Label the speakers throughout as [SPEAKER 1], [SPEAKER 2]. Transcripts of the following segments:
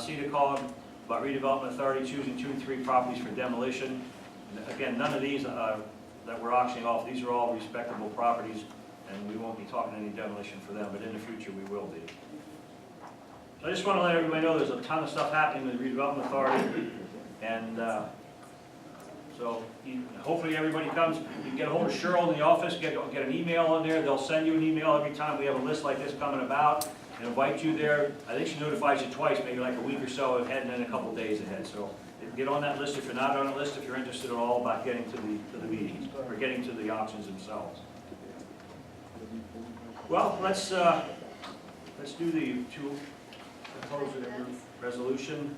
[SPEAKER 1] C to code about redevelopment authority choosing two and three properties for demolition. And Again, none of these uh, that we're auctioning off, these are all respectable properties, and we won't be talking any demolition for them, but in the future, we will be. So I just want to let everybody know, there's a ton of stuff happening with the redevelopment authority, and uh, so you- hopefully everybody comes, you can get ahold of Cheryl in the office, get, get an email on there, they'll send you an email every time we have a list like this coming about, and invite you there. I think she notifies you twice, maybe like a week or so ahead, and then a couple days ahead, so get on that list if you're not on the list, if you're interested at all about getting to the, to the meetings, or getting to the auctions themselves. Well, let's, uh, let's do the two proposed resolution.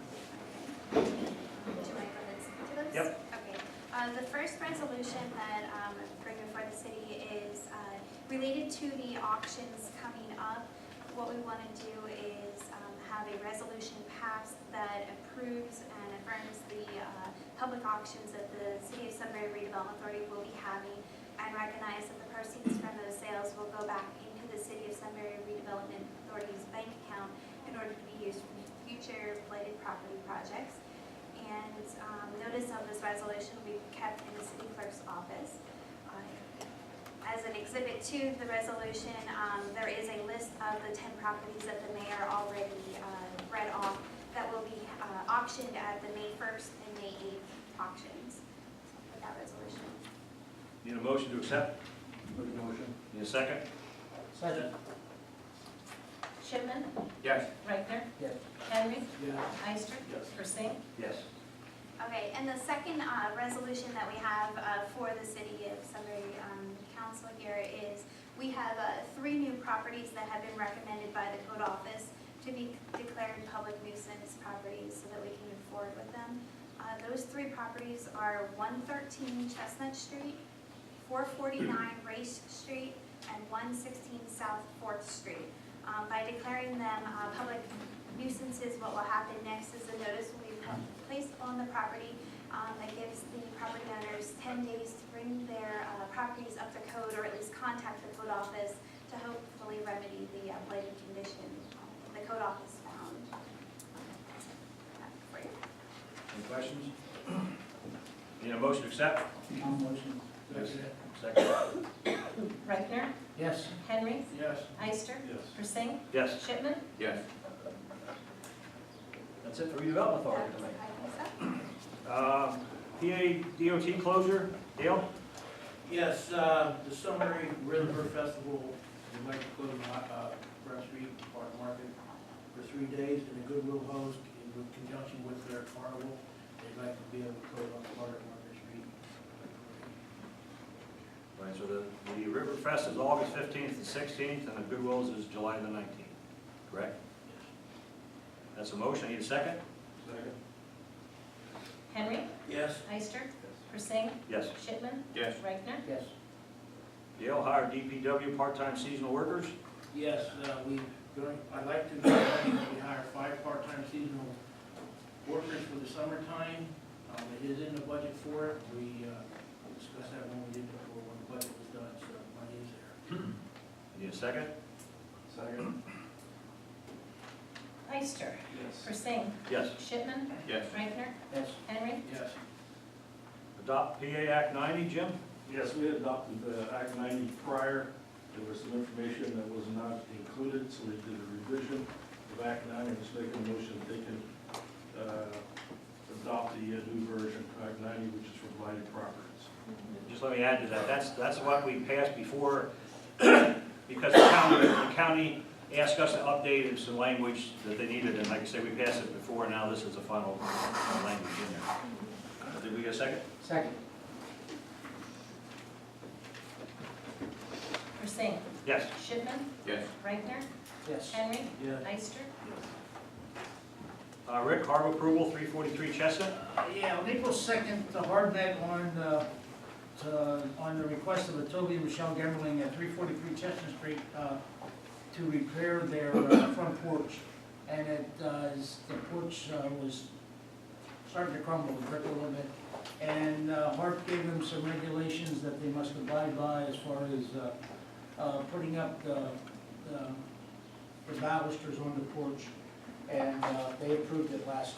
[SPEAKER 2] Do I go into those?
[SPEAKER 1] Yep.
[SPEAKER 2] Okay. Um, The first resolution that um, I'm bringing before the city is uh, related to the auctions coming up. What we want to do is um, have a resolution passed that approves and affirms the uh, public auctions that the City of Sunbury Redevelopment Authority will be having and recognize that the proceeds from those sales will go back into the City of Sunbury Redevelopment Authority's bank account in order to be used for future related property projects. And um, notice of this resolution will be kept in the city clerk's office. Uh, As an exhibit to the resolution, um, there is a list of the 10 properties that the mayor already uh, read off that will be uh, auctioned at the May 1st and May 8th auctions with that resolution.
[SPEAKER 1] Need a motion to accept?
[SPEAKER 3] Make a motion.
[SPEAKER 1] Need a second?
[SPEAKER 3] Second.
[SPEAKER 4] Shipman,
[SPEAKER 1] Yes.
[SPEAKER 4] Reichner,
[SPEAKER 3] Yes.
[SPEAKER 4] Henry,
[SPEAKER 3] Yes.
[SPEAKER 4] Eister,
[SPEAKER 3] Yes.
[SPEAKER 4] Persing,
[SPEAKER 1] Yes.
[SPEAKER 2] Okay, and the second uh, resolution that we have uh, for the city of Sunbury um, Council here is, we have uh, three new properties that have been recommended by the code office to be declared public nuisance properties so that we can move forward with them. Uh, Those three properties are 113 Chestnut Street, 449 Race Street, and 116 South Fourth Street. Um, By declaring them uh, public nuisances, what will happen next is a notice will be pu- placed on the property um, that gives the property owners 10 days to bring their uh, properties up to code or at least contact the code office to hopefully remedy the uh, blighted condition um, the code office found. That's great.
[SPEAKER 1] Any questions? Need a motion to accept?
[SPEAKER 3] I'll motion.
[SPEAKER 1] Second?
[SPEAKER 4] Reichner,
[SPEAKER 3] Yes.
[SPEAKER 4] Henry,
[SPEAKER 3] Yes.
[SPEAKER 4] Eister,
[SPEAKER 3] Yes.
[SPEAKER 4] Persing,
[SPEAKER 1] Yes.
[SPEAKER 4] Shipman,
[SPEAKER 1] Yes. That's it for redevelopment authority
[SPEAKER 2] That's-
[SPEAKER 1] tonight.
[SPEAKER 2] I think so.
[SPEAKER 1] Uh, PA DOT closure, Dale?
[SPEAKER 5] Yes, uh, the Sunbury River Festival, would like to go to, uh, Brown Street Park Market for three days, and the Goodwill host, in conjunction with their carnival, they'd like to be able to go on Park Market Street.
[SPEAKER 1] Right, so the, the River Fest is August fifteenth and sixteenth, and the Goodwills is July the nineteenth, correct? That's a motion, need a second?
[SPEAKER 5] Second.
[SPEAKER 4] Henry,
[SPEAKER 5] Yes.
[SPEAKER 4] Eister, Persing,
[SPEAKER 1] Yes.
[SPEAKER 4] Shipman,
[SPEAKER 1] Yes.
[SPEAKER 4] Reichner,
[SPEAKER 3] Yes.
[SPEAKER 1] Dale hired DPW part-time seasonal workers?
[SPEAKER 5] Yes, uh, we, going- I'd like to, we hire five part-time seasonal workers for the summertime. Um, It is in the budget for it. We uh, discussed that when we did before, when the budget was done, so money is there.
[SPEAKER 1] Need a second?
[SPEAKER 3] Second.
[SPEAKER 4] Eister,
[SPEAKER 3] Yes.
[SPEAKER 4] Persing,
[SPEAKER 1] Yes.
[SPEAKER 4] Shipman,
[SPEAKER 1] Yes.
[SPEAKER 4] Reichner,
[SPEAKER 3] Yes.
[SPEAKER 4] Henry,
[SPEAKER 5] Yes.
[SPEAKER 1] Adopt PA Act ninety, Jim?
[SPEAKER 6] Yes, we adopted the Act 90 prior. There was some information that was not included, so we did a revision of Act 90. Just making a motion that they can uh, adopt the uh, new version of Act 90, which is for blighted properties.
[SPEAKER 1] Just let me add to that, that's, that's what we passed before, because the county, the county asked us to update in some language that they needed, and like I said, we passed it before, and now this is the final uh, language in there. Uh, Did we get a second?
[SPEAKER 3] Second.
[SPEAKER 4] Persing,
[SPEAKER 1] Yes.
[SPEAKER 4] Shipman.
[SPEAKER 1] Yes.
[SPEAKER 4] Reichner,
[SPEAKER 3] Yes.
[SPEAKER 4] Henry,
[SPEAKER 5] Yes.
[SPEAKER 4] Eister,
[SPEAKER 1] Uh, Rick, harbor approval, three forty-three Chestnut?
[SPEAKER 3] Uh, Yeah, on April second, the hardback on, uh, to- on the request of the Toby and Michelle Gemmerling at three forty-three Chestnut Street, uh, to repair their uh, front porch. And it, uh, is- the porch uh, was starting to crumble, it brick a little bit. And uh, Hart gave them some regulations that they must abide by as far as, uh, uh, putting up the, the- the balusters on the porch. and uh, they approved it last